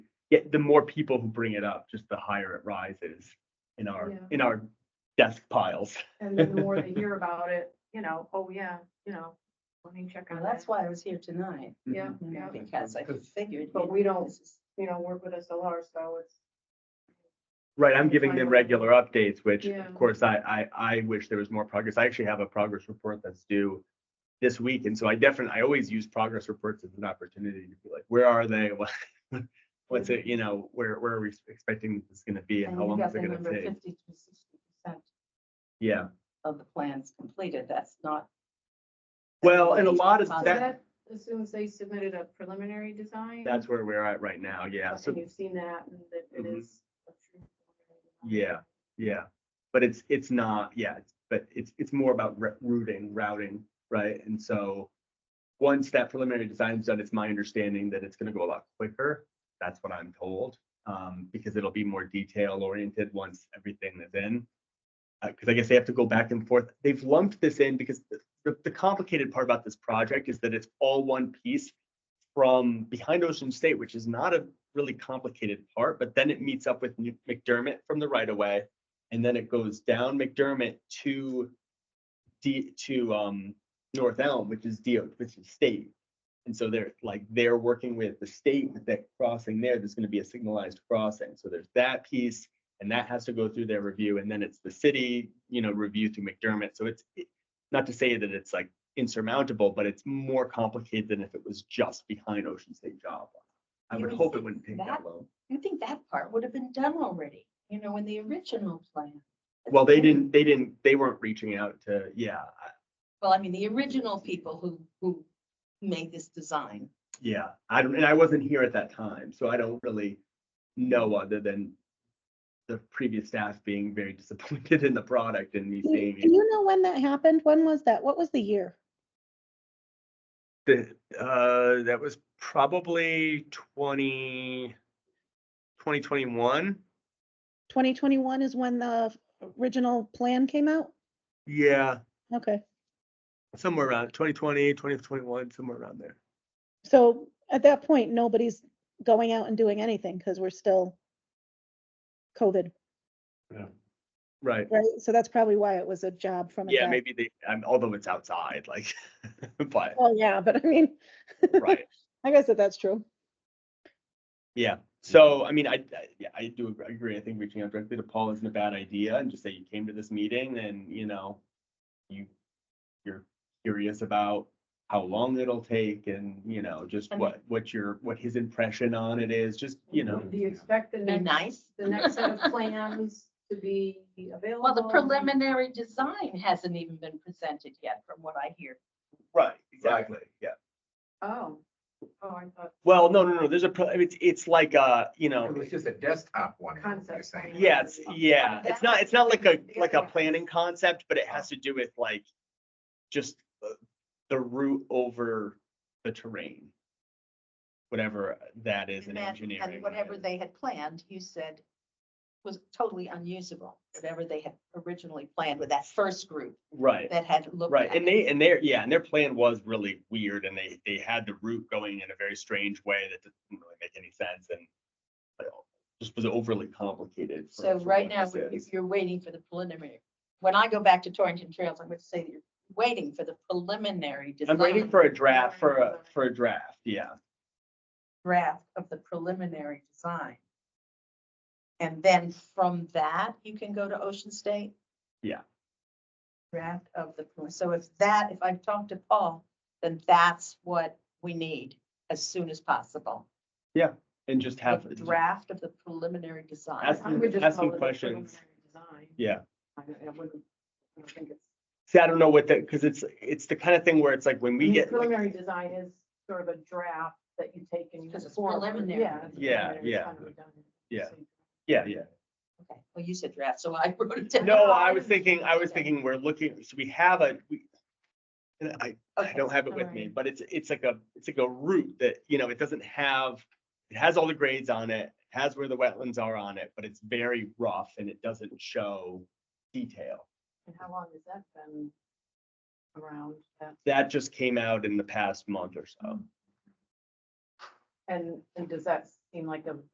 yeah, the more people who bring it up, just the higher it rises in our, Yeah. in our desk piles. And then the more they hear about it, you know, oh, yeah, you know, let me check on Well, that. that's why I was here tonight, Yeah, Mm-hmm. you know, yeah, because I Because- figured. But maybe we don't- this is- you know, work with SLR, so it's, Right, I'm giving them regular updates, which Yeah. of course I, I, I wish there was more progress. I actually have a progress report that's due this week. And so I definitely, I always use progress reports as an opportunity to be like, where are they? What- What's it, you know, where, where are we expecting this is gonna be and And how you long got is the it gonna number take? fifty to sixty percent Yeah, of the plans completed, that's not. well, and a lot of So so that, that, as soon as they submitted a preliminary design. that's where we're at right now. Yeah, so And you've seen that and that it Mhm. is. a true preliminary design. Yeah, yeah, but it's, it's not, yeah, it's- but it's, it's more about ru- routing, routing, right? And so once that preliminary design's done, it's my understanding that it's gonna go a lot quicker. That's what I'm told, um, because it'll be more detail oriented once everything is in. Uh, cause I guess they have to go back and forth. They've lumped this in because the- the, the complicated part about this project is that it's all one piece from behind Ocean State, which is not a really complicated part, but then it meets up with New- McDermott from the right of way. And then it goes down McDermott to D to um North Elm, which is DO, which is state. And so they're like, they're working with the state with that crossing there. There's gonna be a signalized crossing. So there's that piece. And that has to go through their review and then it's the city, you know, review through McDermott. So it's it- not to say that it's like insurmountable, but it's more complicated than if it was just behind Ocean State Job. I You would would hope it think wouldn't take that that long. You think that part would have been done already, you know, in the original plan? Well, they didn't, they didn't, they weren't reaching out to, yeah, I- Well, I mean, the original people who, who made this design. yeah. I don't, and I wasn't here at that time, so I don't really know other than the previous staff being very disappointed in the product and me Do you- seeing do it. you know when that happened? When was that? What was the year? The, uh, that was probably 20 2021. 2021 is when the original plan came out? Yeah, Okay, somewhere around 2020, 2021, somewhere around there. so at that point, nobody's going out and doing anything because we're still COVID, Right. right? So that's probably why it was a job from. a Yeah, job. maybe they, um, although it's outside, like, but, Well, yeah, but I mean, right. I guess that that's true. Yeah, so I mean, I, I- yeah, I do ag- agree. I think reaching out directly to Paul isn't a bad idea and just say you came to this meeting and, you know, you, you're curious about how long it'll take and, you know, just I mean- what, what your, what his impression on it is, just, you know. Do you expect the Be next, nice. the next set of plans to be available? Well, the preliminary design hasn't even been presented yet, from what I hear. Right, exactly, yeah. Oh, oh, I thought, Well, no, no, no, there's a, pro- it's, it's like a, you know, It was just a desktop one. you're Concept saying. plan. yeah, it's, Oh, yeah, it's not, it's not like a, like a planning concept, but it has to do with like, just the- the route over the terrain. Whatever that is in And- engineering. And whatever they had planned, you said was totally unusable, whatever they had originally planned with that first group Right, that had looked. right, at and it. they, and their, yeah, and their plan was really weird, and they, they had the route going in a very strange way that didn't really make any sense, and but it just was overly complicated. for- So for right what now, this we- is. if you're waiting for the preliminary, when I go back to Torrington Trails, I'm going to say that you're waiting for the preliminary I'm waiting design for a draft, for a, for a draft, yeah. draft of the preliminary design. And then from that, you can go to Ocean State? Yeah. Draft of the, prelim- so if that, if I've talked to Paul, then that's what we need as soon as possible. And just A have, draft of the preliminary design. Ask I would just Ask call me it a questions. preliminary design. yeah. I I wouldn't, I don't think it's. See, I don't know what that, because it's, it's the kind of thing where it's like when we The get, like- Preliminary design is sort of a draft that you take and you. Because it's forward. preliminary. Yeah. it's Yeah, preliminary, it's yeah. kind of redundant. Yeah. So- yeah, yeah. Okay, Well, you said draft, so I wrote it down. No, I was thinking, I was thinking, we're looking, so we have a, we, and I, I Okay. don't have it with me, alright. but it's, it's like a, it's like a route that, you know, it doesn't have, it has all the grades on it, has where the wetlands are on it, but it's very rough and it doesn't show detail. And how long has that been around? that? That just came out in the past month or so. And, and does that seem like a